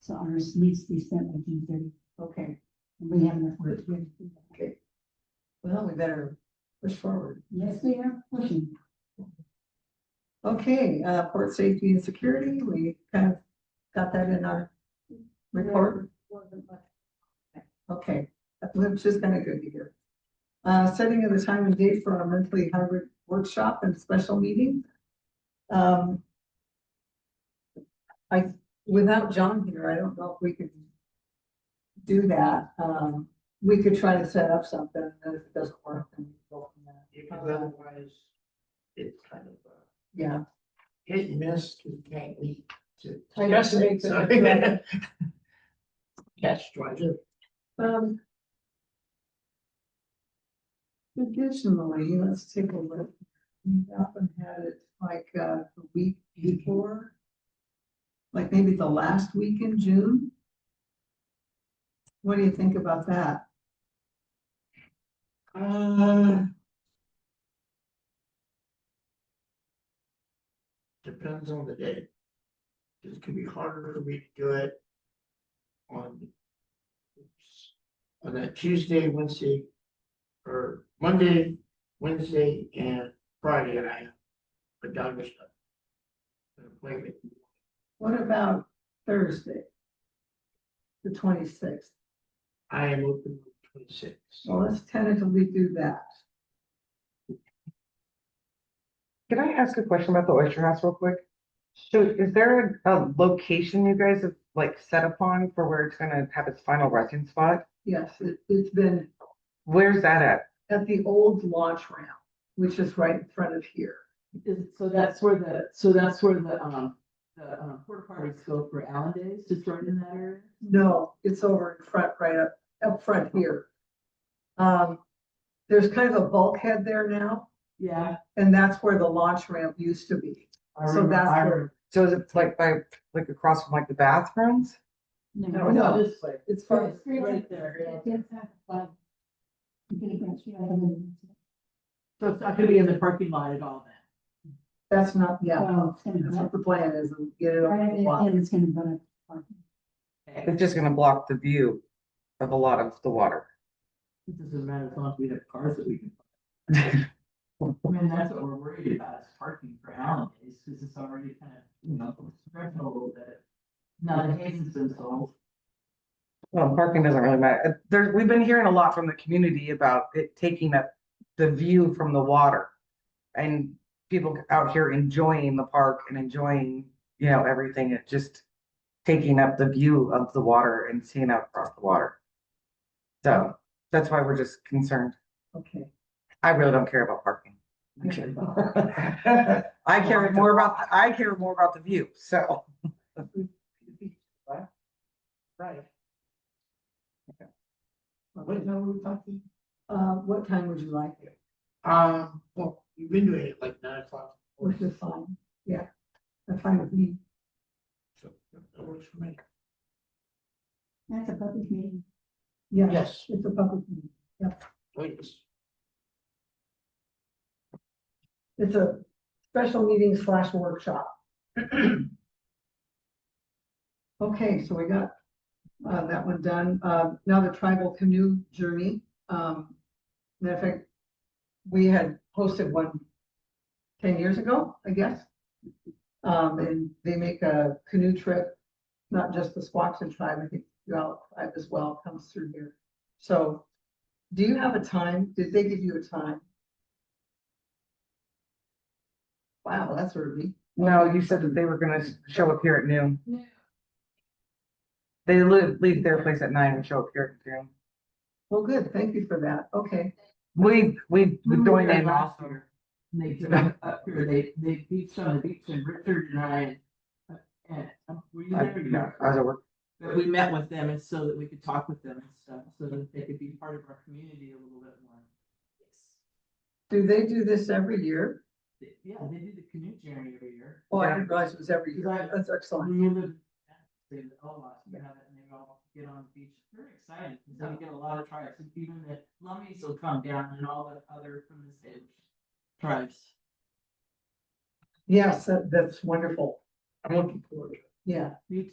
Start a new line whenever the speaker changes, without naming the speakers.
So ours needs to be sent by June thirty,
Okay,
and we have enough work to get it.
well, we better push forward.
Yes, we are pushing.
Okay, uh, port safety and security, we kind of got that in our report. Okay, which is kind of good to hear. Uh, setting of the time and date for our monthly hybrid workshop and special meeting. Um. I, without John here, I don't know if we could do that. Um, we could try to set up something, and if it doesn't work, then we go from there.
Yeah, because otherwise, it's kind of uh, a
Yeah.
hit and miss, 'cause we can't meet to.
Try to
discuss it,
make
so-
the-
Catch twenty.
Um. Additionally, let's take a look. We often had it like uh, the week before. Like maybe the last week in June. What do you think about that?
Uh. Depends on the day. 'Cause It can be harder for me to do it on oops, on that Tuesday, Wednesday, or Monday, Wednesday, and Friday, and I have a doctor's appointment.
What about Thursday? The twenty-sixth.
I am open twenty-six.
Well, let's tentatively do that.
Can I ask a question about the oyster house real quick? So is there a, a location you guys have like set upon for where it's gonna have its final resting spot?
Yes, it- it's been
Where's that at?
at the old launch ramp, which is right in front of here.
Is, so that's where the, so that's where the, um, the, uh, porta potties go for Allen Days, just right in that area?
No, it's over in front, right up, up front here. Um, there's kind of a bulkhead there now,
Yeah.
and that's where the launch ramp used to be.
I
So
remember-
that's
I
where-
remember- So is it like by, like across from like the bathrooms?
No,
No.
no,
This way.
it's far,
Right right there. yeah. So it's not gonna be in the parking lot at all then?
that's not, Oh, yeah,
Well, it's gonna
that's
go
what
up.
the plan is, and get it over the
Right,
block.
And it's gonna go up.
It's just gonna block the view of a lot of the water.
It doesn't matter as long as we have cars that we can. I mean, that's what we're worried about is parking for Allen Days, because it's already kind of, you know, stretched a little bit. Now the case has been solved.
Well, parking doesn't really matter. Uh, There, we've been hearing a lot from the community about it taking up the view from the water. And people out here enjoying the park and enjoying, you know, everything, it just taking up the view of the water and seeing out across the water. So that's why we're just concerned.
Okay,
I really don't care about parking. I care more about, the- I care more about the view, so.
Right. What time were we talking?
uh, what time would you like it?
Um, well, you've been doing it like nine o'clock.
Which is fine, yeah, that's fine with me.
So that works for me.
That's a public meeting.
Yeah,
Yes.
it's a public meeting.
Please.
It's a special meeting slash workshop. Okay, so we got uh, that one done. Uh, Now the tribal canoe journey. um, Matter of fact, we had hosted one 10 years ago, I guess. Um, And they make a canoe trip, not just the Squaxin tribe, I think the Yellow tribe as well comes through here. So do you have a time? Did they give you a time? Wow, that's early.
No, you said that they were gonna s- show up here at noon. They live, leave their place at nine and show up here at noon.
Well, good, thank you for that, okay.
We, we, we
We
joined
were
in
last
also.
year, And they did up up here, they, they beached on the beach and Richard and I, uh, and, uh, were you
I-
there?
yeah, I was at work.
But we met with them and so that we could talk with them and stuff, so that they could be part of our community a little bit more.
Do they do this every year?
They- Yeah, they do the canoe journey every year.
Oh, I
Yeah.
didn't realize it was every year,
Right.
that's excellent.
When you live, in Jackson, they have a lot, you have it, and they all get on the beach, they're excited, because they get a lot of tribes, and even the Lummies will come down and all the other from the same tribes.
Yes, that- that's wonderful,
I'm looking forward to it.
yeah.
Me